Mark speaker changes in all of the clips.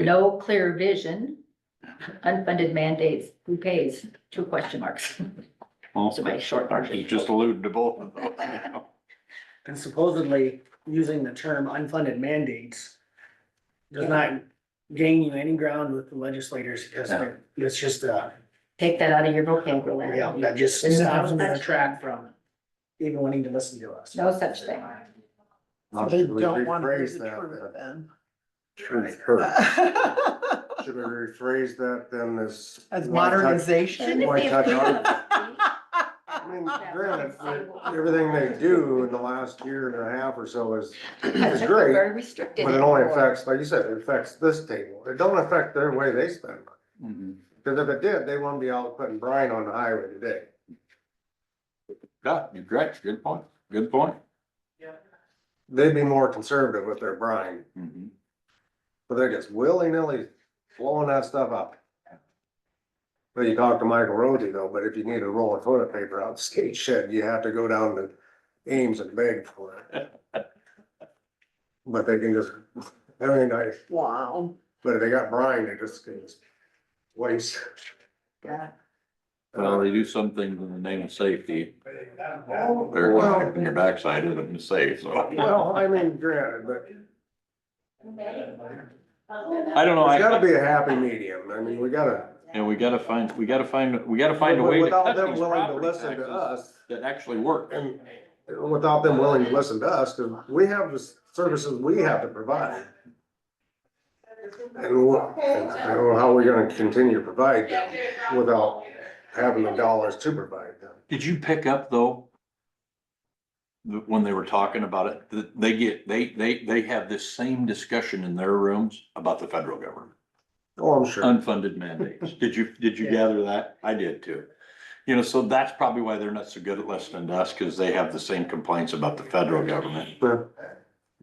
Speaker 1: No clear vision, unfunded mandates, who pays? Two question marks.
Speaker 2: Well,
Speaker 1: Those are my short
Speaker 2: you
Speaker 1: version.
Speaker 2: just alluded to both of those.
Speaker 3: And supposedly, using the term unfunded mandates does not gain you any ground with the legislators, because
Speaker 2: No.
Speaker 3: it's just, uh,
Speaker 1: Take that out of your vocabulary.
Speaker 3: yeah, that just
Speaker 1: There's no
Speaker 3: stops them in their
Speaker 1: such-
Speaker 3: track from even wanting to listen to us.
Speaker 1: No such thing.
Speaker 4: They don't want to hear
Speaker 5: rephrase
Speaker 4: the
Speaker 5: that,
Speaker 4: truth
Speaker 5: then.
Speaker 4: then.
Speaker 5: Truth hurts. Should we rephrase that then as?
Speaker 4: As
Speaker 5: why touch-
Speaker 4: modernization.
Speaker 5: Why touch on it?
Speaker 1: That
Speaker 5: I mean, granted, everything they do in the last year and a half or so is, is
Speaker 1: took a
Speaker 5: great,
Speaker 1: Very restricted.
Speaker 5: but it only
Speaker 1: anymore.
Speaker 5: affects, like you said, it affects this table. It don't affect their way they spend money.
Speaker 2: Mhm.
Speaker 5: Cause if it did, they wouldn't be out putting brine on the highway today.
Speaker 2: Yeah, you're correct. Good point. Good point.
Speaker 5: They'd be more conservative with their brine,
Speaker 2: Mhm.
Speaker 5: but they're just willy-nilly blowing that stuff up. But you talk to Michael Rhodey though, but if you need a roll of toilet paper out of the skate shed, you have to go down to Ames and beg for it. But they can just, everything nice,
Speaker 4: Wow.
Speaker 5: but if they got brine, they just can just waste.
Speaker 1: Yeah.
Speaker 2: Well, they do some things in the name of safety. They're
Speaker 5: Well-
Speaker 2: gonna in your backside isn't safe, so.
Speaker 5: Well, I mean, granted, but
Speaker 2: I don't know.
Speaker 5: there's
Speaker 2: I,
Speaker 5: gotta be a happy medium. I mean, we gotta.
Speaker 2: and we gotta find, we gotta find, we gotta find a way to
Speaker 5: Without
Speaker 2: cut
Speaker 5: them
Speaker 2: these
Speaker 5: willing to
Speaker 2: property
Speaker 5: listen to
Speaker 2: taxes
Speaker 5: us.
Speaker 2: that actually work.
Speaker 5: And without them willing to listen to us, because we have the services we have to provide. And what, I don't know how we're gonna continue to provide them without having the dollars to provide them.
Speaker 2: Did you pick up though? The, when they were talking about it, that they get, they, they, they have this same discussion in their rooms about the federal government.
Speaker 5: Oh, I'm sure.
Speaker 2: unfunded mandates. Did you, did you
Speaker 3: Yeah.
Speaker 2: gather that? I did too. You know, so that's probably why they're not so good at listening to us, because they have the same complaints about the federal government
Speaker 5: Yeah.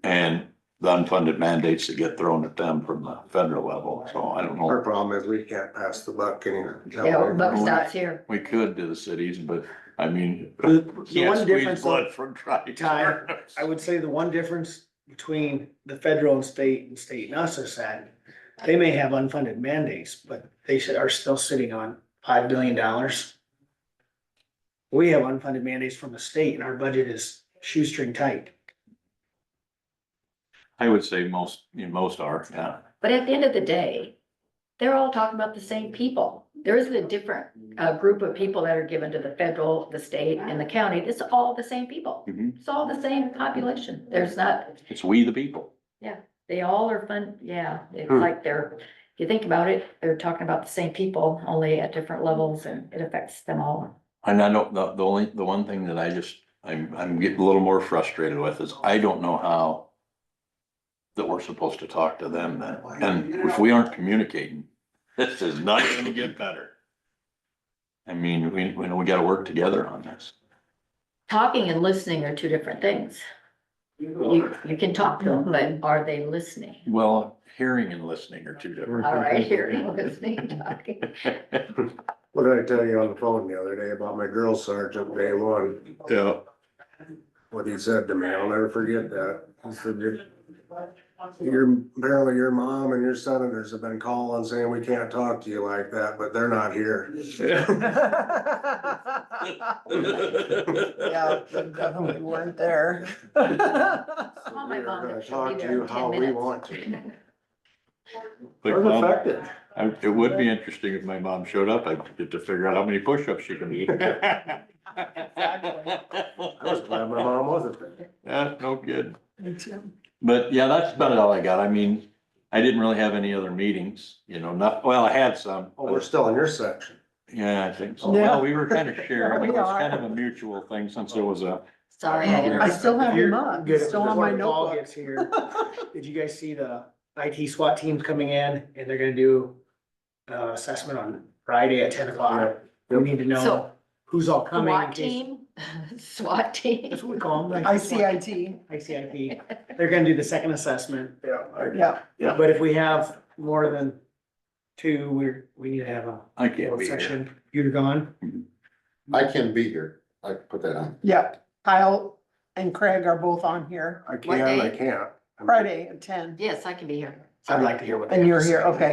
Speaker 2: and the unfunded mandates that get thrown at them from the federal level. So I don't
Speaker 5: Our
Speaker 2: know.
Speaker 5: problem is we can't pass the buck any.
Speaker 1: Yeah, buck stops here.
Speaker 2: We could to the cities, but I mean,
Speaker 3: The the
Speaker 2: can't
Speaker 3: one
Speaker 2: squeeze
Speaker 3: difference,
Speaker 2: blood from dry.
Speaker 3: Ty, I would say the one difference between the federal and state and state and us is that they may have unfunded mandates, but they should, are still sitting on five billion dollars. We have unfunded mandates from the state and our budget is shoestring tight.
Speaker 2: I would say most, you know, most are, yeah.
Speaker 1: But at the end of the day, they're all talking about the same people. There isn't a different, uh, group of people that are given to the federal, the state and the county. It's all the same people.
Speaker 3: Mm-hmm.
Speaker 2: Mhm.
Speaker 1: It's all the same population. There's not,
Speaker 2: It's we the people.
Speaker 1: they all are fun, yeah, it's
Speaker 5: Hmm.
Speaker 1: like they're, if you think about it, they're talking about the same people, only at different levels and it affects them all.
Speaker 2: And I don't, the, the only, the one thing that I just, I'm, I'm getting a little more frustrated with is I don't know how that we're supposed to talk to them then. And if we aren't communicating, this is not gonna get better. I mean, we, we know we gotta work together on this.
Speaker 1: Talking and listening are two different things. You, you can talk to them, but are they listening?
Speaker 2: Well, hearing and listening are two different.
Speaker 1: All right, hearing, listening, talking.
Speaker 5: What did I tell you on the phone the other day about my girl sergeant day one?
Speaker 2: Yeah.
Speaker 5: What he said to me, I'll never forget that. He said, "You're- Your, apparently your mom and your senators have been calling saying we can't talk to you like that, but they're not here.
Speaker 4: Yeah, definitely weren't there.
Speaker 1: Call Oh, my
Speaker 5: We're
Speaker 1: mom,
Speaker 5: gonna
Speaker 1: she'll be
Speaker 5: talk to
Speaker 1: there in
Speaker 5: you
Speaker 1: 10
Speaker 5: how we
Speaker 1: minutes.
Speaker 5: want to.
Speaker 2: But,
Speaker 5: We're
Speaker 2: um,
Speaker 5: affected.
Speaker 2: I- It would be interesting if my mom showed up, I'd get to figure out how many push-ups she can do.
Speaker 5: I was glad my mom wasn't there.
Speaker 2: Yeah, no good. But yeah, that's about all I got. I mean, I didn't really have any other meetings, you know, not, well, I had some.
Speaker 5: Oh, we're still in your section.
Speaker 2: Yeah, I think so.
Speaker 4: Yeah.
Speaker 2: Well, we were kind of sharing. It
Speaker 4: We
Speaker 2: was
Speaker 4: are.
Speaker 2: kind of a mutual thing since there was a,
Speaker 1: Sorry,
Speaker 4: I
Speaker 1: I,
Speaker 4: still have your mug,
Speaker 3: Good.
Speaker 4: it's still on my
Speaker 3: Before Paul
Speaker 4: notebook.
Speaker 3: gets here, Did you guys see the IT SWAT teams coming in and they're gonna do uh, assessment on Friday at ten o'clock? We need to know
Speaker 1: So-
Speaker 3: who's all coming. in
Speaker 1: SWAT
Speaker 3: case-
Speaker 1: team, SWAT team.
Speaker 3: That's what we call them. like-
Speaker 4: ICIT,
Speaker 3: ICIP. They're gonna do the second assessment,
Speaker 5: Yeah. I-
Speaker 4: yeah.
Speaker 3: but if we have more than two, we're, we need to have a
Speaker 2: I can't
Speaker 3: little
Speaker 2: be here.
Speaker 3: session. You're gone.
Speaker 6: I can be here. I can put that on.
Speaker 4: Yeah, Kyle and Craig are both on here,
Speaker 5: I
Speaker 1: What
Speaker 5: can, I
Speaker 1: day?
Speaker 5: can't.
Speaker 4: Friday at ten.
Speaker 1: Yes, I can be here.
Speaker 3: I'd like to hear what. they
Speaker 4: And
Speaker 3: have
Speaker 4: you're
Speaker 3: to
Speaker 4: here,
Speaker 3: say.
Speaker 4: okay.